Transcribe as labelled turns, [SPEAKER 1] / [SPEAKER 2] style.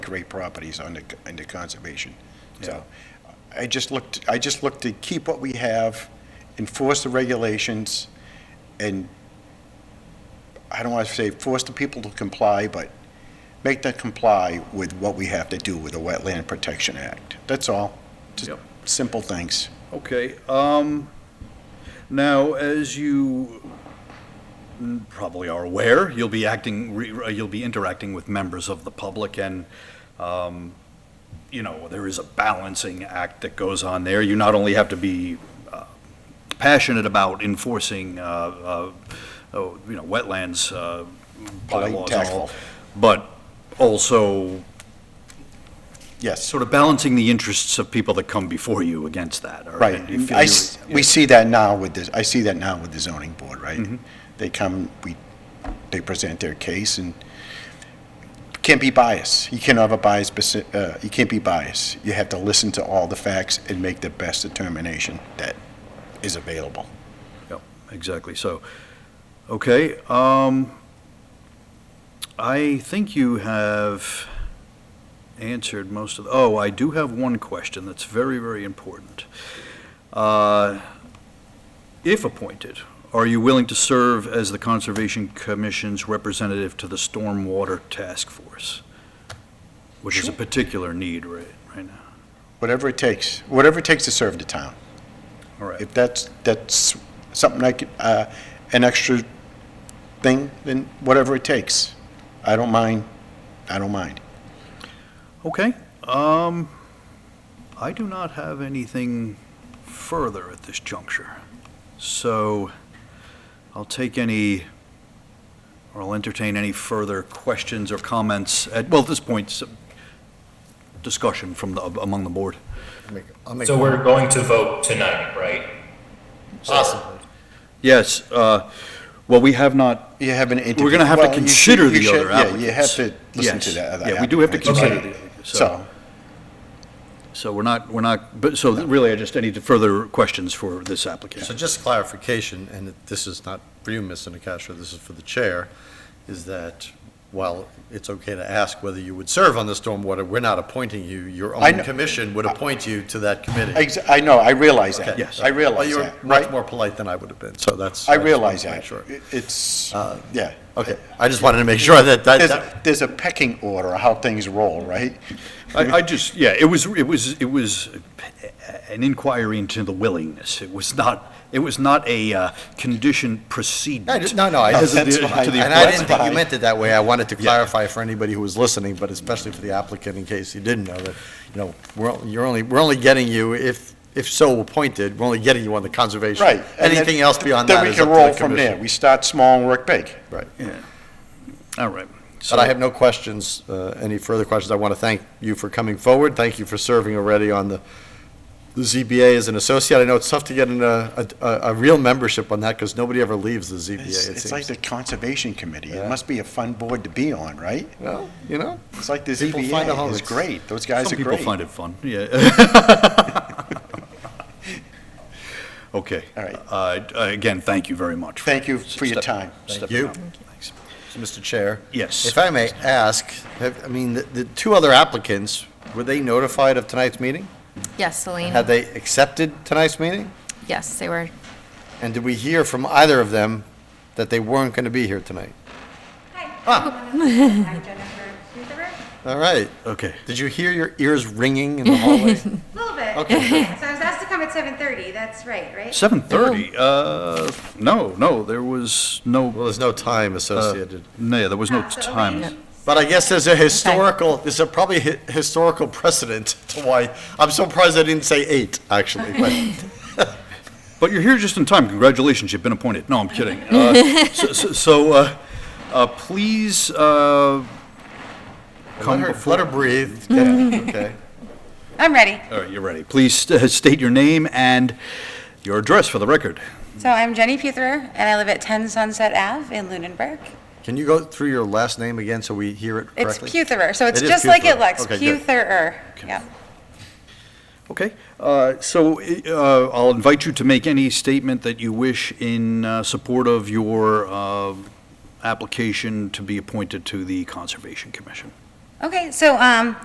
[SPEAKER 1] great properties under, under conservation. So I just looked, I just looked to keep what we have, enforce the regulations, and I don't want to say force the people to comply, but make them comply with what we have to do with the Wetland Protection Act. That's all. Just
[SPEAKER 2] Yep.
[SPEAKER 1] simple things.
[SPEAKER 2] Okay, um, now, as you probably are aware, you'll be acting, re- uh, you'll be interacting with members of the public, and, um, you know, there is a balancing act that goes on there. You not only have to be uh, passionate about enforcing, uh, uh, oh, you know, wetlands
[SPEAKER 1] Polite
[SPEAKER 2] uh,
[SPEAKER 1] and
[SPEAKER 2] bylaws and all,
[SPEAKER 1] tactful.
[SPEAKER 2] but also
[SPEAKER 1] Yes,
[SPEAKER 2] sort of balancing the interests of people that come before you against that. or-
[SPEAKER 1] right.
[SPEAKER 2] and you feel
[SPEAKER 1] I
[SPEAKER 2] you're-
[SPEAKER 1] s- we see that now with this, I see that now with the zoning board,
[SPEAKER 2] Mm-hmm.
[SPEAKER 1] right? They come, we, they present their case and can't be biased. You can't have a bias, besi- uh, you can't be biased. You have to listen to all the facts and make the best determination that is available.
[SPEAKER 2] Yep, exactly, so, okay, um, I think you have answered most of, oh, I do have one question that's very, very important. Uh, If appointed, are you willing to serve as the Conservation Commission's representative to the Stormwater Task Force? Which is a particular need right, right now,
[SPEAKER 1] Whatever it takes, whatever it takes to serve the town.
[SPEAKER 2] all right.
[SPEAKER 1] If that's, that's something I could, uh, an extra thing, then whatever it takes. I don't mind, I don't mind.
[SPEAKER 2] Okay, um, I do not have anything further at this juncture. So I'll take any, or I'll entertain any further questions or comments at, well, at this point, some discussion from the, among the board.
[SPEAKER 3] Make- I'll make,
[SPEAKER 4] So we're going to vote tonight, right?
[SPEAKER 3] possibly.
[SPEAKER 2] Yes, uh, well, we have not,
[SPEAKER 1] You have an interview.
[SPEAKER 2] we're gonna have to
[SPEAKER 1] Well, you
[SPEAKER 2] consider
[SPEAKER 1] should- you
[SPEAKER 2] the
[SPEAKER 1] should-
[SPEAKER 2] other applicants.
[SPEAKER 1] Yeah, you have to listen to
[SPEAKER 2] Yes.
[SPEAKER 1] the other
[SPEAKER 2] Yeah, we do have to
[SPEAKER 1] applicants.
[SPEAKER 2] consider
[SPEAKER 4] Okay.
[SPEAKER 2] the, so,
[SPEAKER 1] So,
[SPEAKER 2] so we're not, we're not, but, so really, I just, I need further questions for this applicant.
[SPEAKER 3] So just clarification, and it- this is not for you, Mr. Nacastro, this is for the chair, is that while it's okay to ask whether you would serve on the stormwater, we're not appointing you. Your
[SPEAKER 1] I know.
[SPEAKER 3] own commission would appoint you to that committee.
[SPEAKER 1] Ex- I know, I realize that.
[SPEAKER 3] Okay.
[SPEAKER 2] Yes.
[SPEAKER 1] I
[SPEAKER 3] Well,
[SPEAKER 1] realize
[SPEAKER 3] you were
[SPEAKER 1] that,
[SPEAKER 3] much
[SPEAKER 1] right?
[SPEAKER 3] more polite than I would have been, so that's.
[SPEAKER 1] I
[SPEAKER 3] just wanted
[SPEAKER 1] realize
[SPEAKER 3] to make
[SPEAKER 1] that.
[SPEAKER 3] sure.
[SPEAKER 1] It- It's,
[SPEAKER 2] Uh,
[SPEAKER 1] yeah.
[SPEAKER 3] Okay, I just wanted to make sure that, that-
[SPEAKER 1] There's,
[SPEAKER 3] that,
[SPEAKER 1] a- there's a pecking order, how things roll, right?
[SPEAKER 2] I, I just, yeah, it was, it was, it was an inquiry into the willingness. It was not, it was not a uh, conditioned
[SPEAKER 3] I
[SPEAKER 2] precedent.
[SPEAKER 3] just- no, no, I,
[SPEAKER 2] as it
[SPEAKER 3] that's
[SPEAKER 2] is
[SPEAKER 3] fine.
[SPEAKER 2] to
[SPEAKER 3] and
[SPEAKER 2] the
[SPEAKER 3] I didn't
[SPEAKER 2] appointment.
[SPEAKER 3] think you meant it that way. I wanted to clarify for anybody who was listening, but especially for the applicant, in case you didn't know that, you know, we're, on- you're only, we're only getting you if, if so appointed, we're only getting you on the conservation.
[SPEAKER 1] Right. and then-
[SPEAKER 3] Anything else beyond that is
[SPEAKER 1] Then
[SPEAKER 3] up to
[SPEAKER 1] we can
[SPEAKER 3] the
[SPEAKER 1] roll from there.
[SPEAKER 3] commission.
[SPEAKER 1] We start small and work big.
[SPEAKER 3] Right.
[SPEAKER 2] All right. So
[SPEAKER 3] But I have no questions, uh, any further questions. I want to thank you for coming forward. Thank you for serving already on the, the ZBA as an associate. I know it's tough to get in a, a, a real membership on that because nobody ever leaves the ZBA,
[SPEAKER 1] It's,
[SPEAKER 3] it
[SPEAKER 1] it's like
[SPEAKER 3] seems.
[SPEAKER 1] the Conservation Committee. It
[SPEAKER 3] Yeah.
[SPEAKER 1] must be a fun board to be on, right?
[SPEAKER 3] Well, you know,
[SPEAKER 1] It's like the
[SPEAKER 3] People find a
[SPEAKER 1] ZBA
[SPEAKER 3] home.
[SPEAKER 1] is great. Those guys
[SPEAKER 2] Some
[SPEAKER 1] are
[SPEAKER 2] people
[SPEAKER 1] great.
[SPEAKER 2] find it fun, yeah. Okay.
[SPEAKER 1] All right.
[SPEAKER 2] Uh, Again, thank you very much.
[SPEAKER 1] Thank you for your
[SPEAKER 2] Step-
[SPEAKER 1] time.
[SPEAKER 2] stepping
[SPEAKER 3] Thank you.
[SPEAKER 2] up. Thanks.
[SPEAKER 3] Mr. Chair.
[SPEAKER 2] Yes.
[SPEAKER 3] If I may ask, have, I mean, the, the two other applicants, were they notified of tonight's meeting?
[SPEAKER 5] Yes, Celine.
[SPEAKER 3] Had they accepted tonight's meeting?
[SPEAKER 5] Yes, they were.
[SPEAKER 3] And did we hear from either of them that they weren't going to be here tonight? Ah.
[SPEAKER 6] I'm Jennifer Rutherford.
[SPEAKER 3] All right.
[SPEAKER 2] Okay.
[SPEAKER 3] Did you hear your ears ringing in the hallway?
[SPEAKER 6] A little bit.
[SPEAKER 3] Okay.
[SPEAKER 6] So I was asked to come at 7:30, that's right, right?
[SPEAKER 2] 7:30, uh, no, no, there was
[SPEAKER 3] Well,
[SPEAKER 2] no,
[SPEAKER 3] there's no time
[SPEAKER 2] uh,
[SPEAKER 3] associated.
[SPEAKER 2] no, there was no
[SPEAKER 6] Ah, so
[SPEAKER 2] time.
[SPEAKER 6] late.
[SPEAKER 3] But I guess there's a historical, there's a probably hi- historical precedent to why, I'm surprised I didn't say eight, actually, but.
[SPEAKER 2] But you're here just in time. Congratulations, you've been appointed. No, I'm kidding. Uh, so, so, so uh, uh, please uh,
[SPEAKER 3] Let
[SPEAKER 2] come
[SPEAKER 3] her,
[SPEAKER 2] before.
[SPEAKER 3] let her breathe. Yeah, okay.
[SPEAKER 6] I'm ready.
[SPEAKER 2] All right, you're ready. Please st- state your name and your address for the record.
[SPEAKER 6] So I'm Jenny Putherer, and I live at 10 Sunset Ave in Lunenburg.
[SPEAKER 3] Can you go through your last name again so we hear it
[SPEAKER 6] It's
[SPEAKER 3] correctly?
[SPEAKER 6] Putherer, so it's
[SPEAKER 3] It is
[SPEAKER 6] just like it
[SPEAKER 3] Putherer.
[SPEAKER 6] looks,
[SPEAKER 3] Okay, good.
[SPEAKER 6] Putherer. Yeah.
[SPEAKER 2] Okay. Uh, so uh, I'll invite you to make any statement that you wish in uh, support of your uh, application to be appointed to the Conservation Commission.
[SPEAKER 6] Okay, so um,